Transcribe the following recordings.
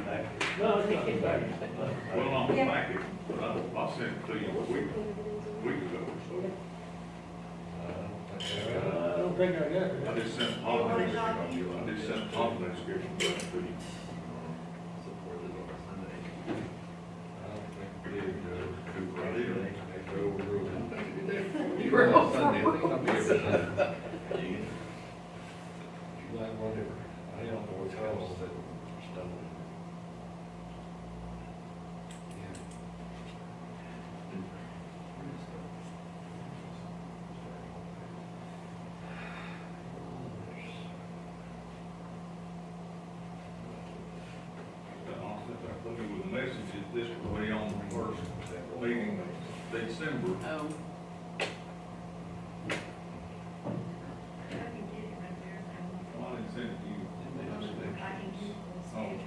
No, it's not bad. Well, on the Yeah. packet, but I'll, I'll send it to you a week, week ago. I don't think I got it. I just sent all the, I just sent all the description to you. You were on Sunday, I think I'll be here Sunday. July, whatever. I don't know what else that stuff. I put you with a message, that this was way on the first meeting of December. Oh, I can get it right there. if Well, I didn't send it to you. I want.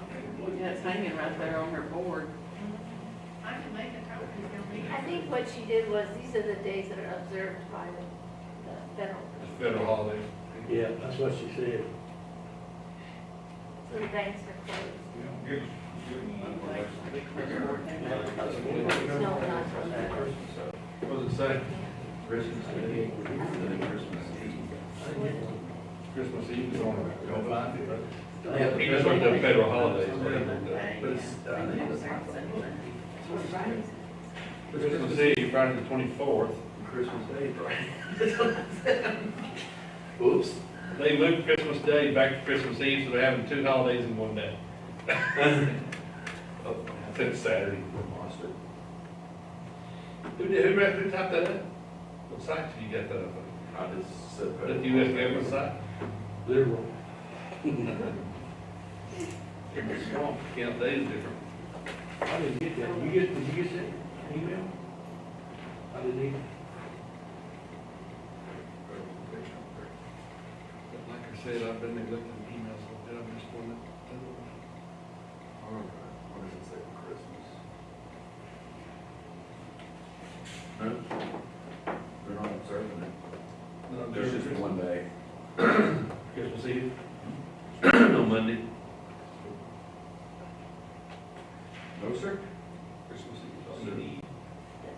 I can get this. yeah, it's hanging right there on her board. I can make a copy if you'll need it. I think what she did was, these are the days that are observed by the the federal, It's federal holiday. Yeah, that's what she said. so the banks are closed. You know, give, give them that No, not from there. What does it say? Christmas Day, and then Christmas Eve. Christmas Eve is on. Go find it. Yeah, that's what the federal holidays. Yeah, But it's- I think they have it's- uh, something. Christmas Eve, Friday the twenty-fourth. Christmas Day, right? Oops. They moved Christmas Day back to Christmas Eve, so they're having two holidays in one day. Oh, Since Saturday. Monster. Who did, who read, who typed that up? What site did you get that up I on? just said. That US government site? Liberal. It's wrong, count days different. I didn't get that. You get, did you get that email? I didn't even. But Like I said, I've been neglecting emails, so did I miss one? What does it say for Christmas? No? They're not observing it. No, There's just Christmas- one day. Christmas Eve? On Monday. No, sir? Christmas That's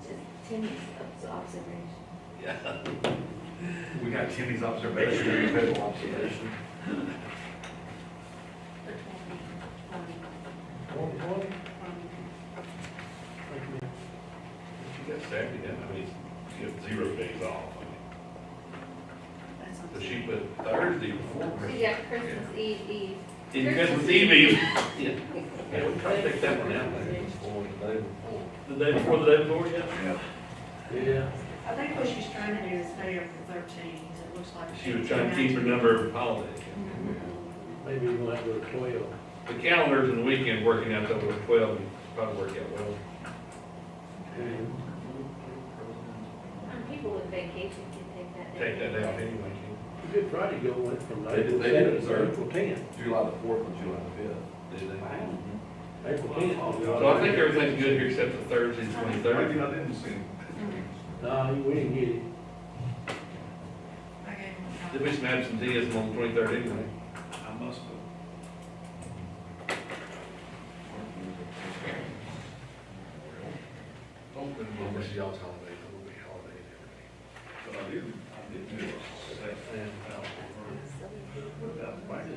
just Timmy's obs- observation. We got Timmy's observation. Federal observation. One, one, You got Saturday, then, I mean, you have zero days off. I mean. So she put Thursday before So Christmas. you got Christmas Eve, Eve. In Christmas Christmas Eve Eve. Eve. Yeah. Yeah, we try to take that one out. The day before, the day before, yeah. Yeah. yeah. I think what she's trying to do is stay up to thirteen, 'cause it looks like. She was trying to keep her number of holidays. Maybe you might go to twelve. The calendars and the weekend working out over twelve would probably work out well. And Um, People with vacation can Take take that day. that out anyway. Good Friday go went from They April did- they did seventh observe. to April tenth. July the fourth and July the fifth. Did they? April tenth. So I think everything's good here except for Thursday, the Maybe twenty-third. I didn't send it. Nah, we didn't get it. I gave them a There'll be some absenteeism on the twenty-third anyway. I must have. Open, we'll miss y'all's holidays, it will be holidays every But I didn't, I didn't do it. Without the packet.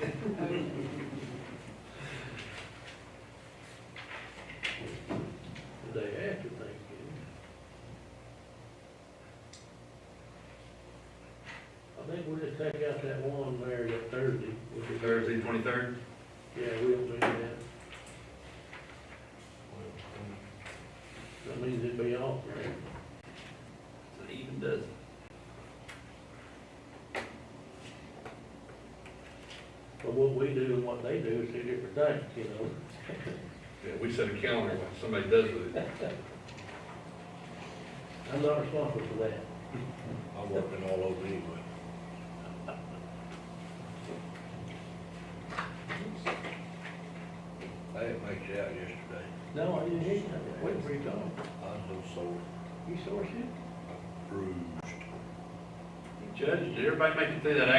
day. the day after Thanksgiving. I think we'll just take out that one there, that Thursday. which is- Thursday, twenty-third? Yeah, we'll do that. That means it'd be off, right? It even does. But what we do and what they do is two different things, you know? Yeah, we set a calendar, when somebody does with it. I'm not responsible for that. I'm working all over anyway. I didn't make it out yesterday. No, I didn't hear you. I was waiting for you to talk. I was so sore, You sore shit? bruised. Judge, did everybody make it through that